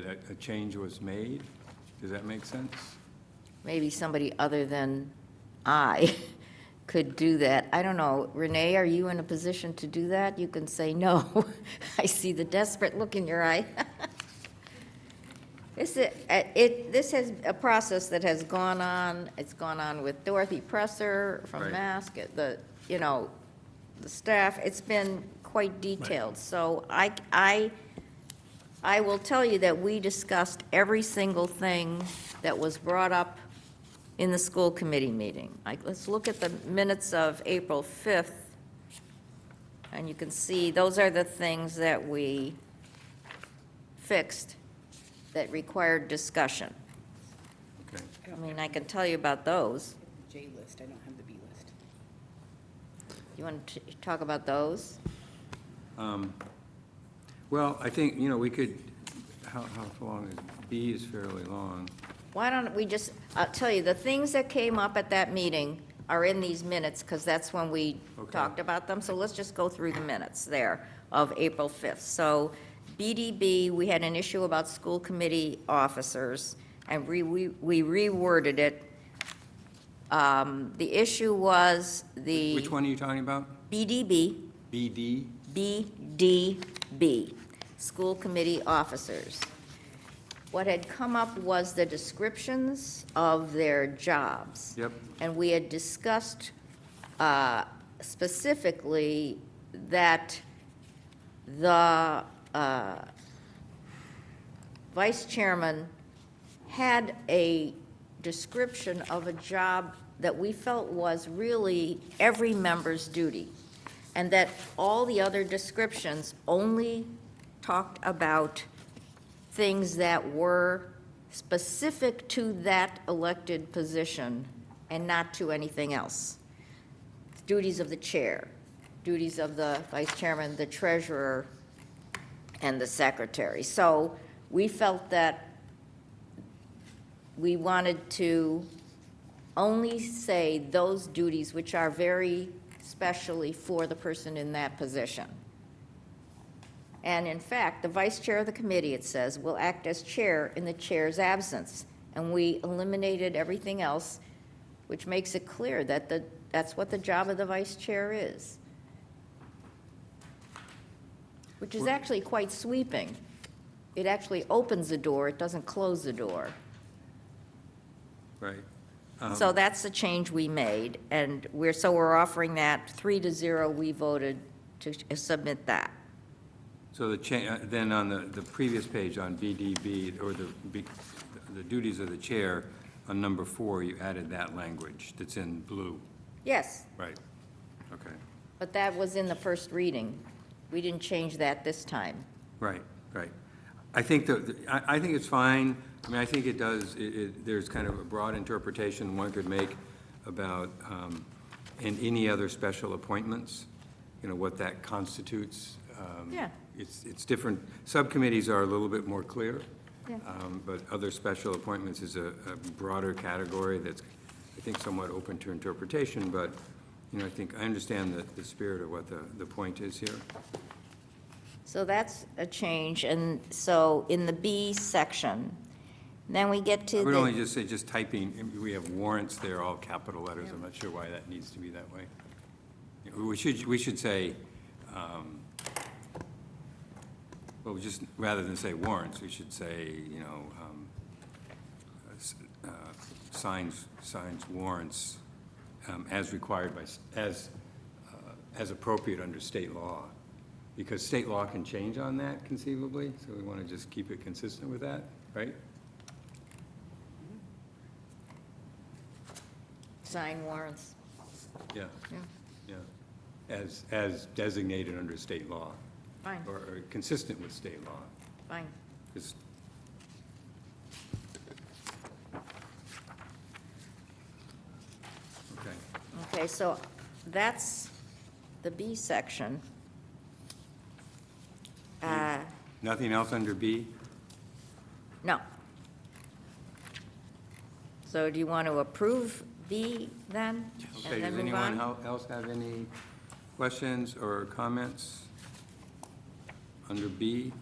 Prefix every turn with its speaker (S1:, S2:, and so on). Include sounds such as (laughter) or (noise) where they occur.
S1: that a change was made. Does that make sense?
S2: maybe somebody other than I (laughs) could do that. I don't know. Renee, are you in a position to do that? You can say no. (laughs) I see the desperate look in your eye. (laughs) This, is- uh, it, this is a process that has gone on, it's gone on with Dorothy Presser from
S1: Right.
S2: Mask, uh, the, you know, the staff, it's been quite detailed. So I, I, I will tell you that we discussed every single thing that was brought up in the school committee meeting. Like, let's look at the minutes of April 5th, and you can see, those are the things that we fixed that required discussion.
S1: Okay.
S2: I mean, I can tell you about those.
S3: J list, I don't have the B list.
S2: You want to talk about those?
S1: Um, Well, I think, you know, we could, how, how long is, B is fairly long.
S2: Why don't we just, I'll tell you, the things that came up at that meeting are in these minutes, because that's when we
S1: Okay.
S2: talked about them, so let's just go through the minutes there of April 5th. So BDB, we had an issue about school committee officers, and we we we reworded it. Um, The issue was the.
S1: Which one are you talking about?
S2: BDB.
S1: BD?
S2: BDB, School Committee Officers. What had come up was the descriptions of their jobs.
S1: Yep.
S2: And we had discussed uh, specifically that the uh, vice chairman had a description of a job that we felt was really every member's duty, and that all the other descriptions only talked about things that were specific to that elected position and not to anything else. Duties of the chair, duties of the vice chairman, the treasurer, and the secretary. So we felt that we wanted to only say those duties which are very specially for the person in that position. And in fact, the vice chair of the committee, it says, will act as chair in the chair's absence. And we eliminated everything else, which makes it clear that the, that's what the job of the vice chair is. Which is actually quite sweeping. It actually opens the door, it doesn't close the door.
S1: Right. Um,
S2: So that's the change we made, and we're, so we're offering that, three to zero, we voted to uh, submit that.
S1: So the cha, uh, then on the, the previous page on BDB, or the, B- the duties of the chair, on number four, you added that language that's in blue.
S2: Yes,
S1: Right. Okay.
S2: but that was in the first reading. We didn't change that this time.
S1: Right, right. I think that, I, I think it's fine. I mean, I think it does, it, it, there's kind of a broad interpretation one could make about, um, and any other special appointments, you know, what that constitutes. Um,
S2: Yeah.
S1: It's, it's different, subcommittees are a little bit more clear.
S2: Yeah.
S1: Um, but other special appointments is a, a broader category that's, I think, somewhat open to interpretation, but, you know, I think, I understand the, the spirit of what the, the point is here.
S2: So that's a change, and so in the B section, then we get
S1: I
S2: to
S1: would only
S2: the,
S1: just say, just typing, we have warrants there, all capital letters, I'm not sure why that needs to be that way. We should, we should say, um, well, just, rather than say warrants, we should say, you know, um, s- uh, signs, signs warrants um, as required by, s- as, uh, as appropriate under state law. Because state law can change on that conceivably, so we want to just keep it consistent with that, right?
S2: sign warrants.
S1: Yeah.
S2: Yeah.
S1: Yeah, as, as designated under state law,
S2: Fine,
S1: or- or consistent with state law.
S2: fine.
S1: 'Cause- Okay,
S2: Okay, so that's the B section. Uh,
S1: nothing else under B?
S2: No. So do you want to approve B then?
S1: Okay,
S2: and then
S1: does
S2: move
S1: anyone
S2: on?
S1: hel- else have any questions or comments under B?